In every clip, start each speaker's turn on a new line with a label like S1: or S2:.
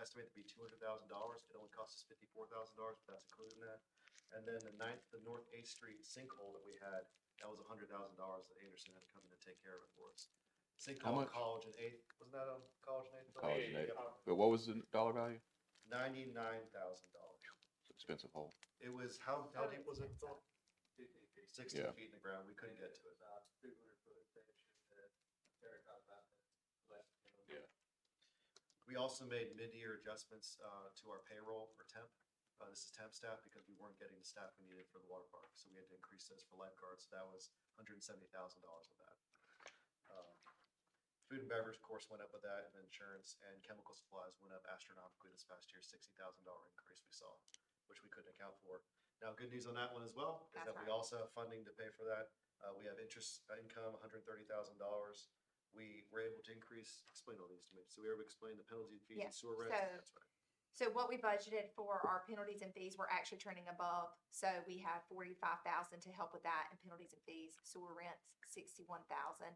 S1: estimated to be two hundred thousand dollars. It only cost us fifty-four thousand dollars, but that's included in that. And then the ninth, the North Eighth Street sinkhole that we had, that was hundred thousand dollars that Anderson had to come in and take care of it for us. Sinkhole on
S2: much?
S1: College and Eighth, wasn't that on College and Eighth?
S2: College and Eighth.
S1: Yep,
S2: But what was the dollar value?
S1: Ninety-nine thousand dollars.
S2: It's an expensive hole.
S1: It was, how, how deep was it? Phil? Sixteen
S2: Yeah.
S1: feet in the ground. We couldn't get to it.
S2: Yeah.
S1: We also made mid-year adjustments uh, to our payroll for temp. Uh, This is temp staff because we weren't getting the staff we needed for the water park, so we had to increase those for lifeguards. That was hundred and seventy thousand dollars of that. Um, Food and beverage, of course, went up with that, and insurance and chemical supplies went up astronomically this past year, sixty thousand dollar increase we saw, which we couldn't account for. Now, good news on that one as well is
S3: That's
S1: that we
S3: right.
S1: also have funding to pay for that. Uh, We have interest income, hundred and thirty thousand dollars we were able to increase, explain all these to me. So we were able to explain the penalty and fees and
S3: Yeah,
S1: sewer rent.
S3: so-
S1: That's right.
S3: So what we budgeted for our penalties and fees, we're actually trending above. So we have forty-five thousand to help with that and penalties and fees, sewer rents, sixty-one thousand.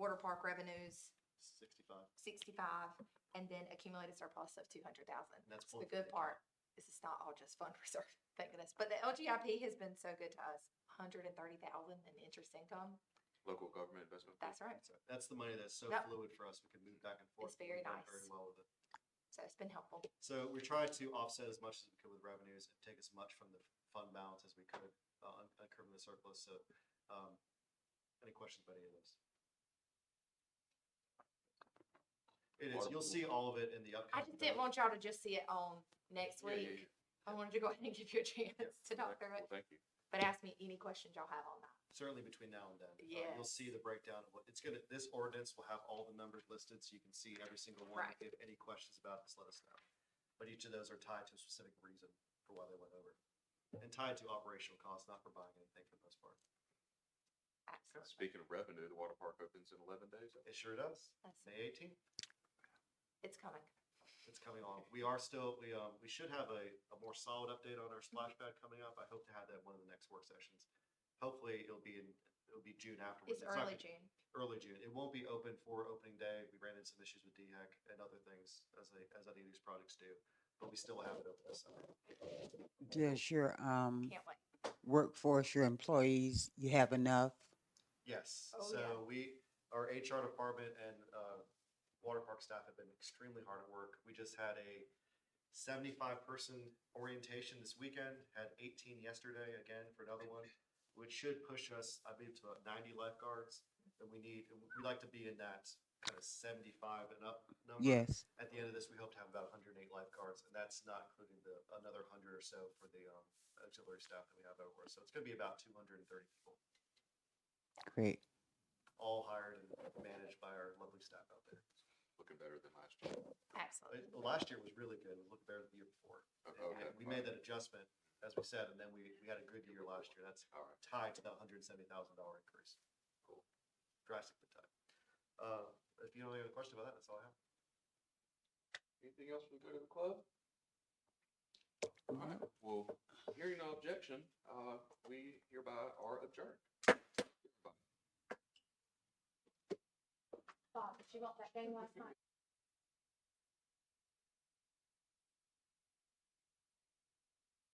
S3: Water park revenues,
S1: Sixty-five.
S3: sixty-five, and then accumulated surplus of two hundred thousand.
S1: And that's
S3: It's the
S1: pulling
S3: good
S1: from the
S3: part. This is not all just fund reserve, thank goodness. But the LGIP has been so good to us, hundred and thirty thousand in interest income.
S2: Local government investment.
S3: That's right.
S1: That's right. That's the money that's so
S3: Yep.
S1: fluid for us. We can move back and forth.
S3: It's
S1: We've
S3: very
S1: done
S3: nice.
S1: Very well with it.
S3: So it's been helpful.
S1: So we tried to offset as much as we could with revenues and take as much from the fund balance as we could, uh, un- uncurving the surplus. So, um, any questions about any of those? It is,
S2: Water
S1: you'll
S2: pool.
S1: see all of it in the
S3: I
S1: upcoming.
S3: just didn't want y'all to just see it on next week. I wanted to go ahead and give you a chance to talk through it,
S2: Thank you.
S3: but ask me any questions y'all have on that.
S1: certainly between now and then. uh, You'll see the breakdown of what, it's gonna, this ordinance will have all the numbers listed, so you can see every single one.
S3: Right.
S1: If you have any questions about this, let us know. But each of those are tied to a specific reason for why they went over. And tied to operational costs, not for buying anything for the most part.
S3: Absolutely.
S2: Speaking of revenue, the water park opens in eleven days.
S1: It sure does.
S3: That's-
S1: May eighteenth,
S3: It's coming.
S1: it's coming on. We are still, we, um, we should have a, a more solid update on our splash pad coming up. I hope to have that one of the next work sessions. Hopefully, it'll be in, it'll be June afterwards.
S3: It's
S1: not
S3: early
S1: gonna-
S3: June.
S1: early June. It won't be open for opening day. We ran into some issues with DHEC and other things as they, as any of these projects do, but we still have it open this summer.
S4: Does your um
S3: Can't wait.
S4: workforce, your employees, you have enough?
S1: Yes,
S3: Oh, yeah.
S1: so we, our HR department and uh, water park staff have been extremely hard at work. We just had a seventy-five person orientation this weekend, had eighteen yesterday again for another one, which should push us, I believe, to about ninety lifeguards that we need. And We'd like to be in that kind of seventy-five and up number.
S4: Yes.
S1: at the end of this, we hope to have about 108 lifeguards, and that's not including the another 100 or so for the um, auxiliary staff that we have over. So it's going to be about 230 people,
S4: Great.
S1: all hired and managed by our lovely staff out there.
S2: Looking better than last year.
S1: It-
S3: Absolutely.
S1: well, last year was really good. It looked better than the year before.
S2: Oh,
S1: And
S2: Okay.
S1: we made that adjustment, as we said, and then we, we had a good year last year. That's
S2: All right.
S1: tied to that $170,000 increase. Cool. Drastically tied. Uh, if you don't have any question about that, that's all I have.
S2: Anything else we go to the club? All right, well, hearing no objection, uh, we hereby are adjourned.
S3: Bob, did you want that game last night?